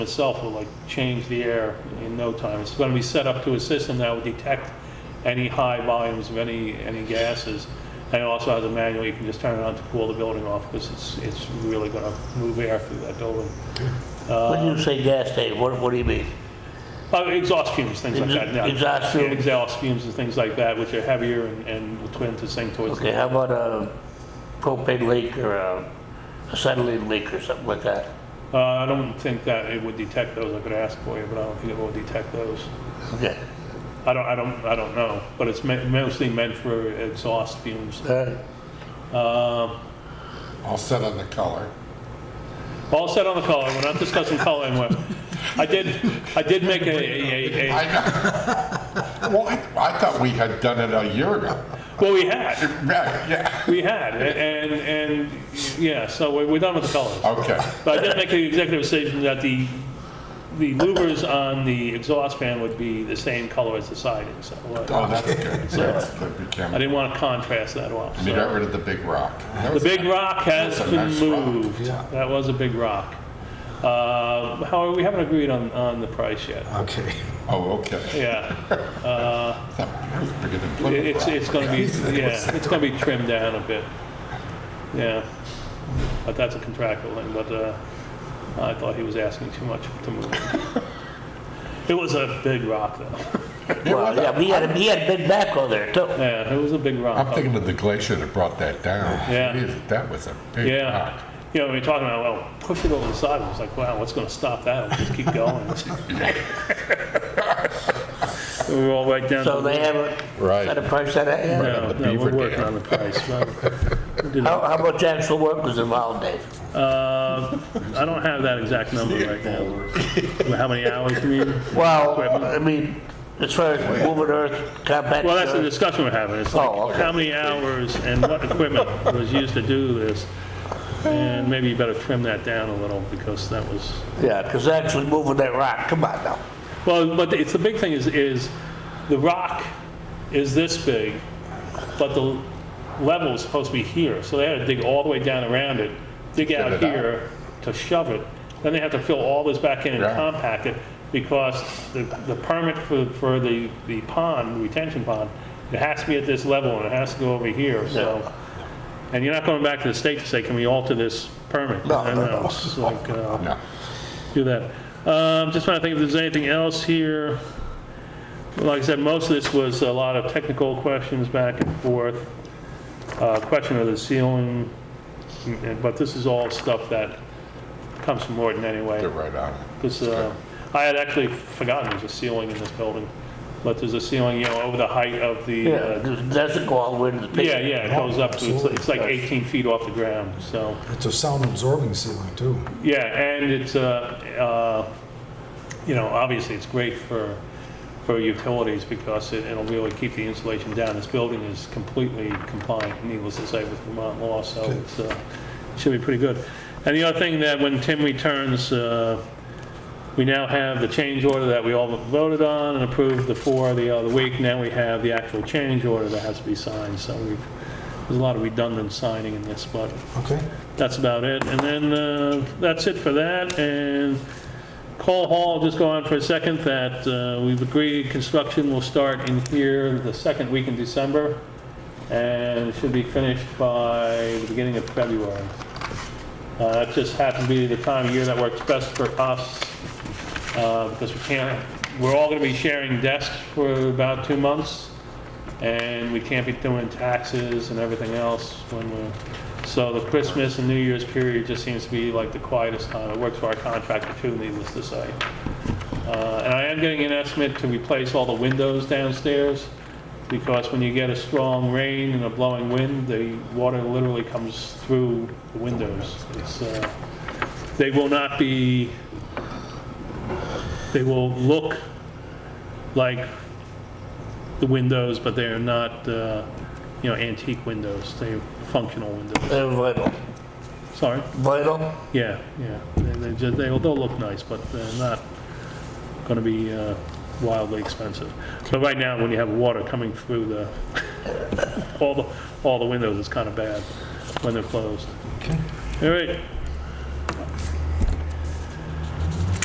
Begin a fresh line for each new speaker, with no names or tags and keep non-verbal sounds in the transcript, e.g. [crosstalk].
itself will like change the air in no time. It's going to be set up to a system that will detect any high volumes of any, any gases. And it also has a manual, you can just turn it on to cool the building off because it's, it's really going to move air through that building.
When you say gas station, what, what do you mean?
Uh, Exhaust fumes, things like that. yeah.
Exhaust fumes.
Exhaust fumes and things like that, which are heavier and, and will tend to sink towards the
Okay, how about a propane leak or a acetylene leak or something like that?
Uh, I don't think that it would detect those. I could ask for you, but I don't think it will detect those.
Okay,
I don't, I don't, I don't know, but it's me- mostly meant for exhaust fumes.
all right.
Uh,
All set on the color.
all set on the color. We're not discussing color anymore. I did, I did make a, a, a,
I
a,
know. [laughs] Well, I, I thought we had done it a year ago.
well, we had,
Right, yeah,
we had, and, and, yeah, so we're, we're done with the colors.
okay.
But I did make an executive decision that the, the louvers on the exhaust fan would be the same color as the siding, so. uh,
Oh,
[laughs]
that's good. That's good, we
I
can,
didn't want to contrast that off.
we
so.
got rid of the big rock. That
The
was-
big rock has
That's a
been
nice rock,
moved.
yeah.
That was a big rock. Uh, However, we haven't agreed on, on the price yet.
Okay.
Oh, okay.
Yeah,
That was bigger than
It-
Plymouth
it's,
Rock.
it's gonna be, yeah, it's gonna be trimmed down a bit. Yeah, but that's a contractual thing, but uh, I thought he was asking too much to move. it. It was a big rock though.
Well, yeah, we had, we had big backhoe there too.
Yeah, it was a big rock.
I'm thinking of the glacier that brought that down.
Yeah.
Jeez, That was a big
Yeah,
rock.
you know, we we're talking about, well, push it over the side, I was like, wow, what's gonna stop that, We'll just keep going.
[laughs]
We We're all right down. to
So
the-
they haven't
Right.
set a price on that yet?
No,
the
no, we're
beaver
working
dam.
on the price, right. We didn't-
How, how much actual work was involved, Dave?
Uh, I don't have that exact number right now. How many hours you mean?
Well, I mean, as far as moving earth, compact
Well, that's the
earth,
discussion we're having. It's
Oh,
like,
okay.
how many hours and what equipment was used to do this? And maybe you better trim that down a little, because that was,
yeah, because actually moving that rock, come on now.
well, but it's, the big thing is, is the rock is this big, but the level is supposed to be here, so they had to dig all the way down around it, dig out
it out.
here to shove it, then they have to fill all this back in and
Yeah.
compact it, because the, the permit for, for the, the pond, retention pond, it has to be at this level and it has to go over here, so. And you're not going back to the state to say, can we alter this permit?
No, no, no.
It's like, uh,
No.
do that. Um, Just trying to think if there's anything else here. Like I said, most of this was a lot of technical questions back and forth, uh, question of the ceiling, and- but this is all stuff that comes from Morton anyway.
They're right on it.
Because I had actually forgotten there's a ceiling in this building, but there's a ceiling, you know, over the height of the,
Yeah,
uh,
it doesn't go all the way to the pit.
yeah, yeah, it goes up, to- it's like- it's like
Absolutely.
18 feet off the ground, so.
It's a sound absorbing ceiling too.
Yeah, and it's, uh, uh, you know, obviously, it's great for, for utilities because it- it'll really keep the insulation down. This building is completely compliant, needless to say, with Vermont law, so it's, uh, should be pretty good. And the other thing that when Tim returns, uh, we now have the change order that we all voted on and approved the four the other week. Now we have the actual change order that has to be signed, so we've, there's a lot of redundant signing in this, but
Okay.
that's about it. And then, uh, that's it for that, and Cole Hall, just go on for a second, that uh, we've agreed construction will start in here the second week in December, and it should be finished by the beginning of February. Uh, That just happens to be the time of year that works best for us, uh, because we can't, we're all going to be sharing desks for about two months, and we can't be doing taxes and everything else when we're, so the Christmas and New Year's period just seems to be like the quietest time. It works for our contractor too, needless to say. Uh, And I am getting an estimate to replace all the windows downstairs, because when you get a strong rain and a blowing wind, the water literally comes through the windows. It's, uh, They will not be, they will look like the windows, but they are not, uh, you know, antique windows. They're functional windows.
They're vital,
Sorry?
vital.
Yeah, yeah. They- They, ju- they'll, they'll look nice, but they're not going to be uh, wildly expensive. But right now, when you have water coming through the, [laughs] all the, all the windows, it's kind of bad when they're closed.
Okay.
All right,